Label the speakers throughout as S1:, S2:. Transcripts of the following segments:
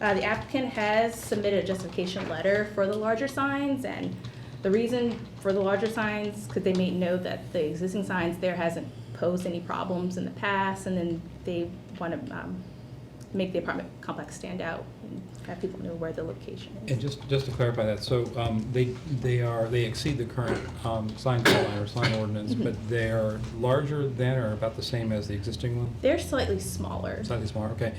S1: Uh, The applicant has submitted a justification letter for the larger signs, and the reason for the larger signs, because they may know that the existing signs there hasn't posed any problems in the past, and then they want to make the apartment complex stand out and have people know where the location is.
S2: And just, just to clarify that, so um, they, they are, they exceed the current um, sign code line or sign ordinance, but they are larger than or about the same as the existing one?
S1: They're slightly smaller.
S2: Slightly smaller, okay.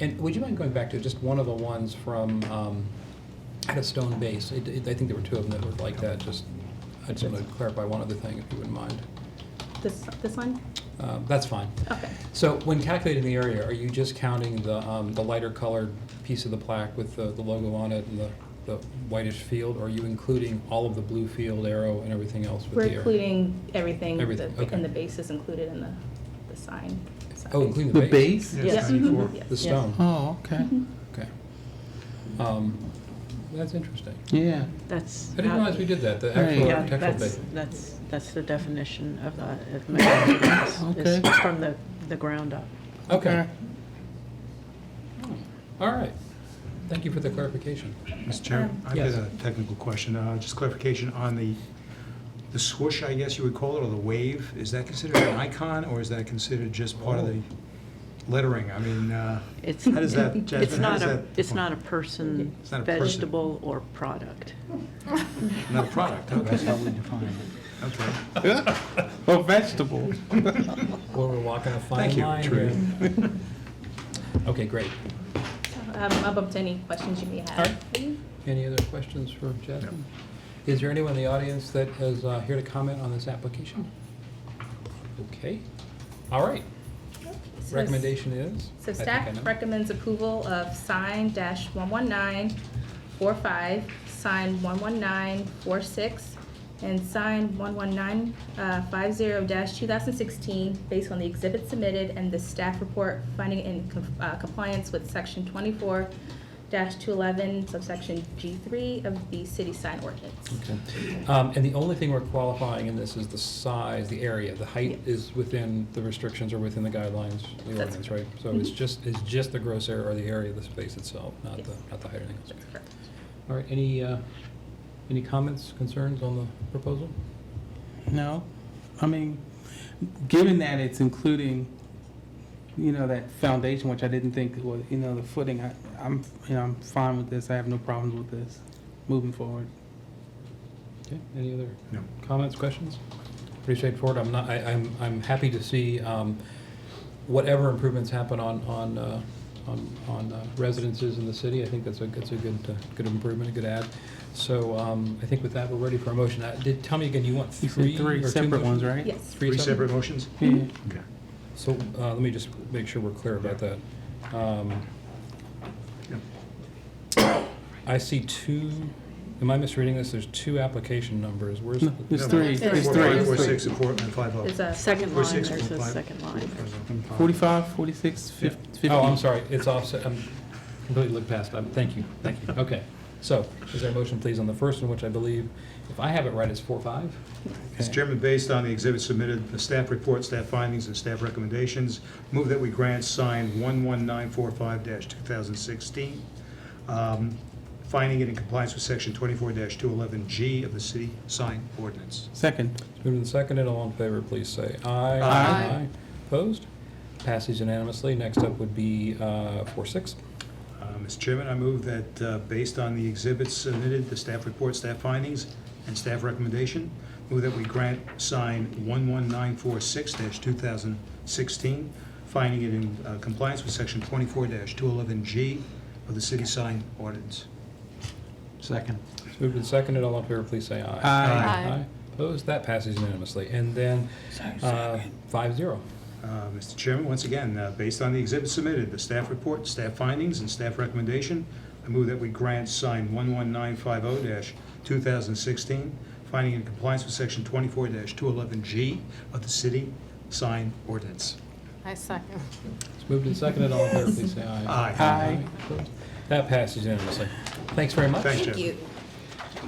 S2: And would you mind going back to just one of the ones from, um, had a stone base? It- it- I think there were two of them that were like that, just, I just want to clarify one other thing, if you wouldn't mind.
S1: This, this one?
S2: Uh, That's fine.
S1: Okay.
S2: So when calculating the area, are you just counting the, um, the lighter colored piece of the plaque with the, the logo on it and the, the whitish field? Or are you including all of the blue field arrow and everything else with
S1: We're
S2: the area?
S1: including everything, the-
S2: Everything, okay.
S1: and the base is included in the, the sign.
S2: Oh, including
S3: The
S2: the base?
S3: base?
S4: Yes, Mm-hmm.
S1: Yes.
S4: 94.
S1: Mhm, yes.
S2: The stone,
S3: Oh, okay,
S2: okay. Um, That's interesting.
S3: yeah.
S4: That's.
S2: I didn't
S4: not-
S2: realize we did that, the
S3: Right.
S2: actual
S4: Yeah,
S2: architectural
S4: that's,
S2: base.
S4: that's, that's the definition of that. of mechanism is- is
S3: Okay.
S4: From the, the ground up.
S2: Okay, all right. Thank you for the clarification.
S5: Mr. Chairman,
S3: Um,
S5: I've got
S2: yes.
S5: a technical question, uh, just clarification on the, the swoosh, I guess you would call it, or the wave, is that considered an icon, or is that considered just part of the
S3: Oh.
S5: lettering? I mean, uh,
S4: It's.
S5: how does that,
S4: It's
S5: Jasmine, how
S4: not
S5: does
S4: a,
S5: that?
S4: it's not a person,
S5: It's not a person.
S4: vegetable, or product.
S5: Not a product,
S3: That's how
S5: okay,
S3: we define it.
S5: okay.
S3: Or vegetables.
S2: Well, we're walking a fine
S5: Thank you,
S2: line
S5: Trudy.
S2: here. Okay, great.
S1: Um, I'm up to any questions you may
S2: All
S1: have.
S2: right. Any other questions for Jasmine? Is there anyone in the audience that is uh, here to comment on this application? Okay. All right.
S1: So-
S2: Recommendation is?
S1: So
S2: I think I
S1: staff
S2: know.
S1: recommends approval of sign dash one one nine four five, sign one one nine four six, and sign one one nine, uh, five zero dash two thousand sixteen, based on the exhibit submitted and the staff report finding in com- uh, compliance with section twenty-four dash two eleven subsection G three of the city sign ordinance.
S2: Okay. Um, And the only thing we're qualifying in this is the size, the area. The height is within the restrictions or within the guidelines, the
S1: That's Mm-hmm.
S2: ordinance, right? So it's just, it's just the gross area or the area of the space itself, not the,
S1: Yes.
S2: not the height or anything else.
S1: That's correct.
S2: All right, any, uh, any comments, concerns on the proposal?
S3: No, I mean, given that it's including, you know, that foundation, which I didn't think was, you know, the footing, I, I'm, you know, I'm fine with this. I have no problems with this, moving forward.
S2: Okay, any other
S5: No.
S2: comments, questions? Pretty straightforward. I'm not, I, I'm, I'm happy to see, um, whatever improvements happen on, on, uh, on, on uh, residences in the city. I think that's a, that's a good, uh, good improvement, a good add. So, um, I think with that, we're ready for a motion. Uh, did, tell me again, you want
S3: You
S2: three
S3: said
S2: or
S3: three
S2: two
S3: separate ones,
S2: motions?
S3: right?
S1: Yes.
S5: Three separate motions?
S3: Yeah.
S5: Okay.
S2: So, uh, let me just make sure we're clear about that. Um,
S5: Yeah.
S2: I see two, am I misreading this? There's two application numbers. Where's?
S3: No,
S2: the-
S3: there's
S5: No,
S3: three,
S1: There's
S3: there's
S5: Four,
S3: three.
S5: five, four,
S3: There's
S5: six,
S3: three.
S5: and four, and five, oh.
S1: It's a.
S4: Second
S5: Four,
S4: line,
S5: six,
S4: there's
S5: one,
S4: a
S5: five.
S4: second line.
S3: Forty-five, forty-six, fif- fifty.
S2: Oh, I'm sorry, it's offset, I'm completely looked past, I'm, thank you, thank you, okay. So, is there a motion, please, on the first one, which I believe, if I have it right, is four, five?
S5: Mr. Chairman, based on the exhibit submitted, the staff report, staff findings, and staff recommendations, move that we grant sign 11945-2016, um, finding it in compliance with section 24-211G of the city sign ordinance.
S3: Second.
S2: Moved and seconded, all in favor, please say aye.
S5: Aye.
S2: Opposed? Passes unanimously, next up would be, uh, four, six.
S5: Uh, Mr. Chairman, I move that, uh, based on the exhibits submitted, the staff report, staff findings, and staff recommendation, move that we grant sign 11946-2016, finding it in uh, compliance with section 24-211G of the city sign ordinance.
S3: Second.
S2: It's moved and seconded, all in favor, please say aye.
S3: Aye.
S2: Aye. Opposed? That passes unanimously, and then, uh, five, zero.
S5: Uh, Mr. Chairman, once again, uh, based on the exhibits submitted, the staff report, staff findings, and staff recommendation, I move that we grant sign 11950-2016, finding in compliance with section 24-211G of the city sign ordinance.
S6: I second.
S2: It's moved and seconded, all in favor, please say aye.
S5: Aye.
S3: Aye.
S2: Opposed? That passes unanimously, thanks very much.
S5: Thank you. Thank you.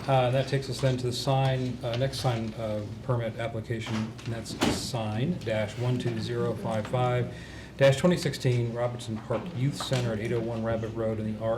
S2: Uh, That takes us then to the sign, uh, next sign uh, permit application, and that's sign dash 12055 dash 2016 Robertson Park Youth Center at 801 Rabbit Road in the R